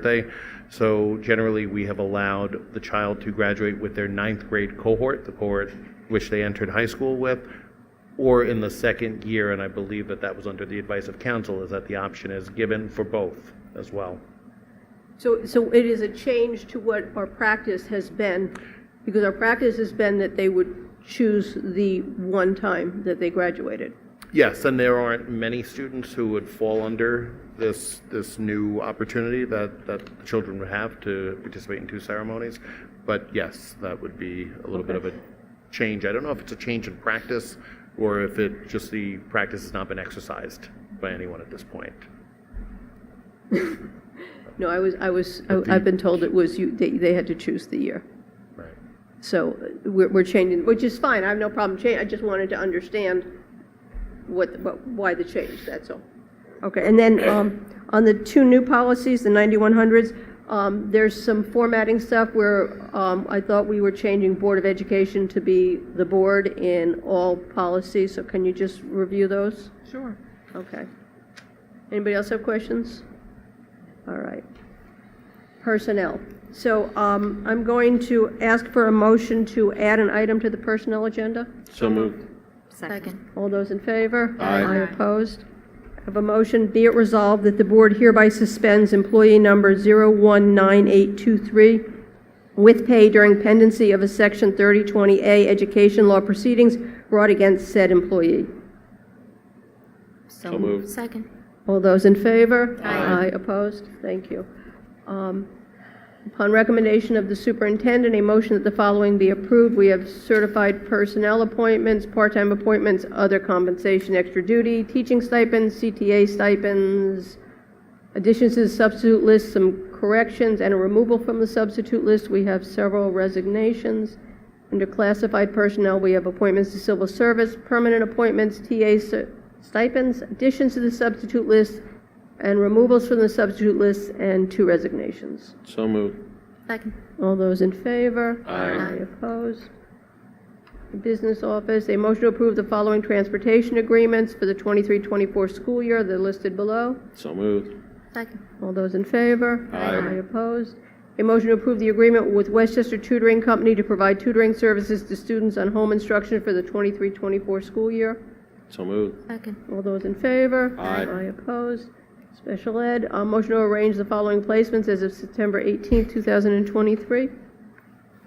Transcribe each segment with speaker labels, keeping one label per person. Speaker 1: birthday. So generally, we have allowed the child to graduate with their ninth grade cohort, the cohort which they entered high school with, or in the second year, and I believe that that was under the advice of council, is that the option is given for both as well.
Speaker 2: So, so it is a change to what our practice has been, because our practice has been that they would choose the one time that they graduated.
Speaker 1: Yes, and there aren't many students who would fall under this, this new opportunity that, that the children would have to participate in two ceremonies. But yes, that would be a little bit of a change. I don't know if it's a change in practice or if it, just the practice has not been exercised by anyone at this point.
Speaker 2: No, I was, I was, I- I've been told it was you, they, they had to choose the year.
Speaker 1: Right.
Speaker 2: So uh, we're, we're changing, which is fine, I have no problem changing, I just wanted to understand what, what, why the change, that's all. Okay, and then, um, on the two new policies, the 9100s, um, there's some formatting stuff where, um, I thought we were changing Board of Education to be the board in all policies, so can you just review those?
Speaker 3: Sure.
Speaker 2: Okay. Anybody else have questions? All right. Personnel. So um, I'm going to ask for a motion to add an item to the personnel agenda.
Speaker 1: So moved.
Speaker 3: Second.
Speaker 2: All those in favor?
Speaker 4: Aye.
Speaker 2: opposed? Have a motion, be it resolved that the board hereby suspends employee number 019823 with pay during pendency of a Section 3020A education law proceedings brought against said employee.
Speaker 3: So moved. Second.
Speaker 2: All those in favor?
Speaker 3: Aye.
Speaker 2: opposed? Thank you. Um, Upon recommendation of the superintendent, a motion that the following be approved. We have certified personnel appointments, part-time appointments, other compensation, extra duty, teaching stipends, CTA stipends, additions to the substitute list, some corrections, and a removal from the substitute list. We have several resignations. Under classified personnel, we have appointments to civil service, permanent appointments, TA cer- stipends, additions to the substitute list, and removals from the substitute list, and two resignations.
Speaker 4: So moved.
Speaker 3: Second.
Speaker 2: All those in favor?
Speaker 4: Aye.
Speaker 2: opposed? Business office, a motion to approve the following transportation agreements for the 23-24 school year, they're listed below.
Speaker 4: So moved.
Speaker 3: Second.
Speaker 2: All those in favor?
Speaker 4: Aye.
Speaker 2: opposed? A motion to approve the agreement with Westchester Tutoring Company to provide tutoring services to students on home instruction for the 23-24 school year.
Speaker 4: So moved.
Speaker 3: Second.
Speaker 2: All those in favor?
Speaker 4: Aye.
Speaker 2: opposed? Special ed, a motion to arrange the following placements as of September 18, 2023.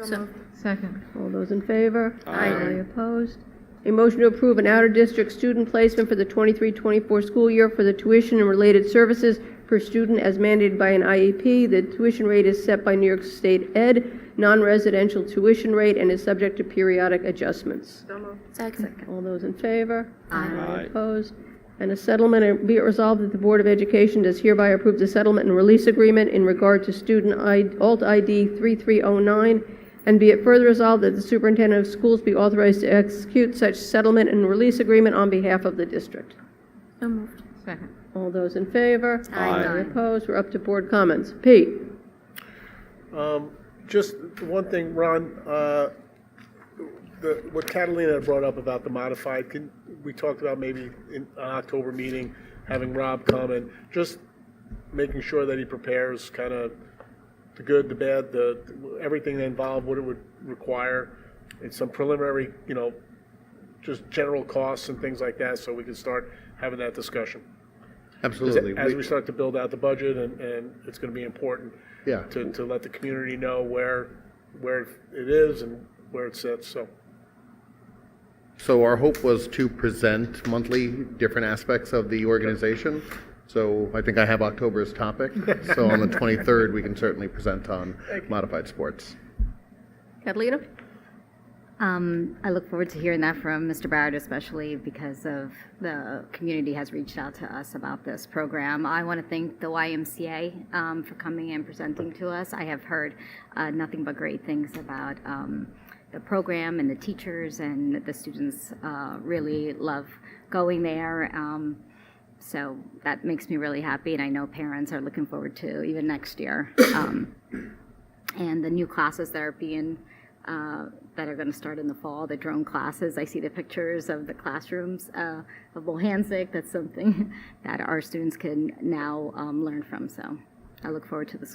Speaker 3: So Second.
Speaker 2: All those in favor?
Speaker 4: Aye.
Speaker 2: opposed? A motion to approve an out-of-district student placement for the 23-24 school year for the tuition and related services per student as mandated by an IEP. The tuition rate is set by New York State Ed, non-residential tuition rate, and is subject to periodic adjustments.
Speaker 3: Second.
Speaker 2: All those in favor?
Speaker 4: Aye.
Speaker 2: Opposed? And a settlement, and be it resolved that the Board of Education does hereby approve the settlement and release agreement in regard to student I- alt ID 3309, and be it further resolved that the superintendent of schools be authorized to execute such settlement and release agreement on behalf of the district.
Speaker 3: So moved. Second.
Speaker 2: All those in favor?
Speaker 4: Aye.
Speaker 2: Any opposed? We're up to board comments. Pete?
Speaker 5: Um, Just one thing, Ron, uh, the- what Catalina had brought up about the modified, can, we talked about maybe in an October meeting, having Rob come and just making sure that he prepares kind of the good, the bad, the, everything involved, what it would require, and some preliminary, you know, just general costs and things like that, so we can start having that discussion.
Speaker 1: Absolutely.
Speaker 5: As we start to build out the budget, and, and it's gonna be important.
Speaker 1: Yeah.
Speaker 5: To, to let the community know where, where it is and where it sits, so.
Speaker 1: So our hope was to present monthly different aspects of the organization. So I think I have October's topic. So on the 23rd, we can certainly present on modified sports.
Speaker 2: Catalina?
Speaker 6: Um, I look forward to hearing that from Mr. Barrett, especially because of the community has reached out to us about this program. I want to thank the YMCA um, for coming and presenting to us. I have heard uh, nothing but great things about um, the program and the teachers and the students uh, really love going there. Um, so that makes me really happy, and I know parents are looking forward to even next year. Um, and the new classes that are being uh, that are going to start in the fall, the drone classes. I see the pictures of the classrooms uh, of Bohansik. That's something that our students can now um, learn from. So I look forward to the